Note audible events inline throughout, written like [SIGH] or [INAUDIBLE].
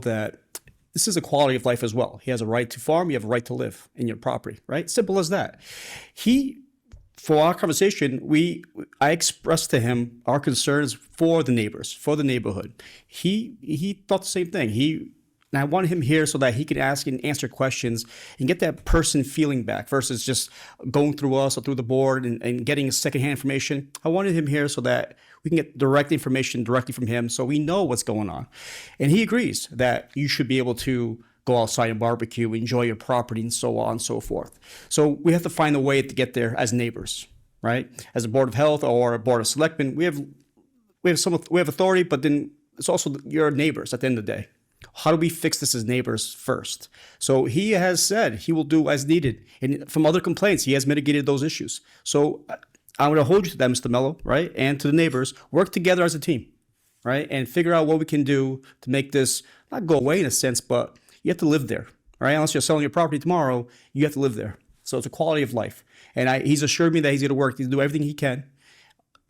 that this is a quality of life as well. He has a right to farm, you have a right to live in your property, right? Simple as that. He for our conversation, we I expressed to him our concerns for the neighbors, for the neighborhood. He he thought the same thing. He and I wanted him here so that he could ask and answer questions and get that person feeling back versus just going through us or through the board and, and getting secondhand information. I wanted him here so that we can get direct information directly from him so we know what's going on. And he agrees that you should be able to go outside and barbecue, enjoy your property, and so on and so forth. So we have to find a way to get there as neighbors, right? As a board of health or a board of selectmen, we have we have some we have authority, but then it's also your neighbors at the end of the day. How do we fix this as neighbors first? So he has said he will do as needed, and from other complaints, he has mitigated those issues. So uh, I- I'm going to hold you to that, Mr. Mello, right, and to the neighbors. Work together as a team right? And figure out what we can do to make this not go away in a sense, but you have to live there, right? Unless you're selling your property tomorrow, you have to live there. So it's a quality of life. And I, he's assured me that he's going to work, he's going to do everything he can.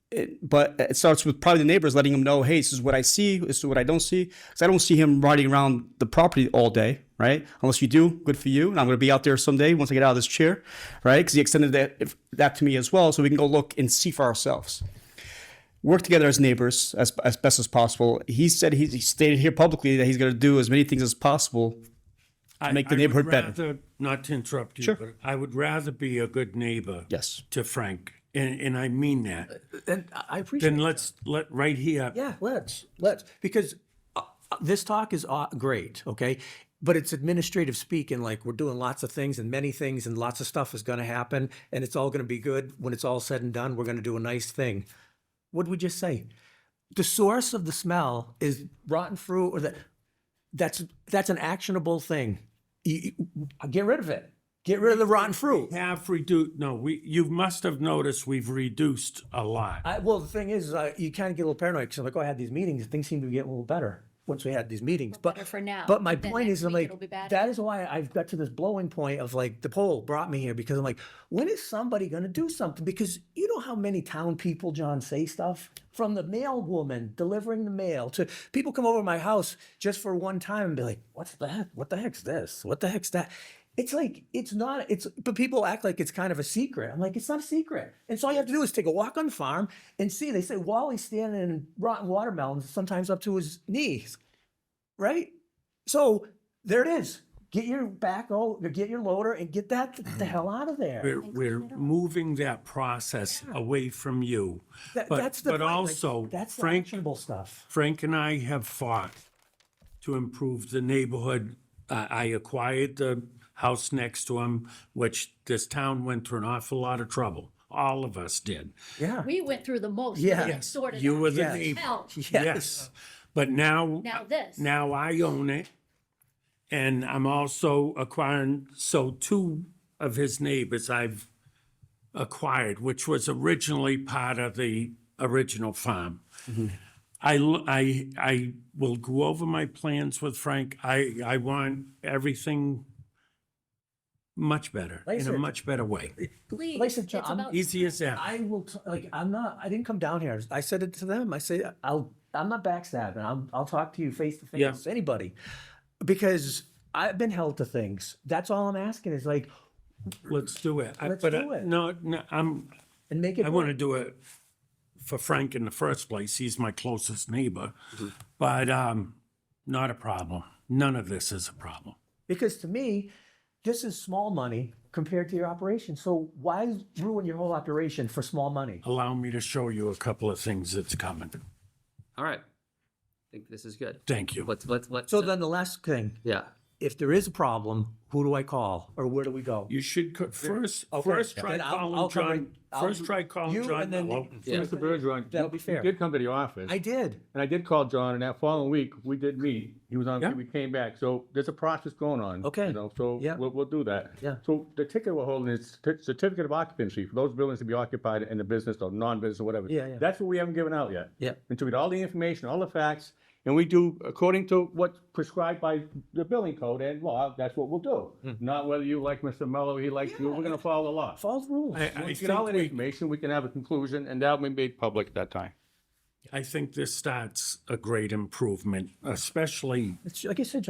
It, but it starts with probably the neighbors letting him know, hey, this is what I see, this is what I don't see. Because I don't see him riding around the property all day, right? Unless you do, good for you. And I'm going to be out there someday once I get out of this chair, right? Because he extended that, if, that to me as well, so we can go look and see for ourselves work together as neighbors as, as best as possible. He said he, he stated here publicly that he's going to do as many things as possible. I- make the I would neighborhood better. rather- Not to interrupt you, Sure. but I would rather be a good neighbor. Yes. To Frank, and, and I mean that. And I I appreciate. Then let's let right here. Yeah, let's let's because uh, uh, this talk is aw- great, okay? But it's administrative speak, and like we're doing lots of things and many things, and lots of stuff is going to happen, and it's all going to be good when it's all said and done. We're going to do a nice thing. What did we just say? The source of the smell is rotten fruit, or that that's that's an actionable thing. You- you- get rid of it. Get rid of the rotten fruit. Have reduced. No, we. You must have noticed we've reduced a lot. I, well, the thing is, uh, you kind of get a little paranoid because I'm like, oh, I had these meetings, and things seem to be getting a little better once we had these meetings. But better for now, But my but then point next is, I'm week like, it'll be bad. that is why I've got to this blowing point of like the poll brought me here because I'm like, when is somebody going to do something? Because you know how many town people, John, say stuff from the mail woman delivering the mail to people come over to my house just for one time and be like, what's that? What the heck's this? What the heck's that? It's like it's not it's but people act like it's kind of a secret. I'm like, it's not a secret. And so all you have to do is take a walk on the farm and see. They say Wally's standing in rotten watermelons, sometimes up to his knees. Right? So there it is. Get your back oh get your loader and get that the hell out of there. We're, we're moving that process away from you. That- but- that's the but point, like, also, that's the Frank- actionable stuff. Frank and I have fought to improve the neighborhood. I I acquired the house next to him, which this town went through an awful lot of trouble. All of us did. Yeah. We went through the most. Yeah. We Sorted You out. were the Hell, neighbor. Yes. But now, Now this. now I own it. And I'm also acquiring, so two of his neighbors I've acquired, which was originally part of the original farm. Mm-hmm. I, l- I- I will go over my plans with Frank. I, I want everything much better, in a Listen. much better [LAUGHS] way. Please, Listen, it's John, I'm about Easy as that. I will t- like I'm not I didn't come down here. I said it to them. I say I'll I'm not backstabbing. I'm, I'll talk to you face to Yeah. face anybody because I've been held to things. That's all I'm asking is like Let's do it. I- Let's but I- do it. No, no, I'm, and make it I want to do it for Frank in the first place. He's my closest neighbor. But um, not a problem. None of this is a problem. Because to me, this is small money compared to your operation. So why ruin your whole operation for small money? Allow me to show you a couple of things that's coming. All right. I think this is good. Thank you. Let's, let's, let's. So then the last thing, Yeah. if there is a problem, who do I call or where do we go? You should co- first, Okay. first try Then I'll- calling I'll come John, and- I'll first do- try calling you John and then- Mello. Yeah. Mr. Bergeron. That'll you- be fair. You did come to the office, I did. and I did call John, and that following week, we did meet. He was on, Yeah. we came back, so there's a process going on. Okay. You know, so Yeah. we'll, we'll do that. Yeah. So the ticket we're holding is cer- certificate of occupancy for those buildings to be occupied in the business or non-business or whatever. Yeah, yeah. That's what we haven't given out yet. Yeah. Until we get all the information, all the facts, and we do according to what's prescribed by the building code and law, that's what we'll do. Not whether you like Mr. Mello, he likes you, we're gonna follow the law. Hmm. Follow the rules. I, I Once we get all think that we, information, we can have a conclusion, and that will be made public at that time. I think this starts a great improvement, especially It's, like I said,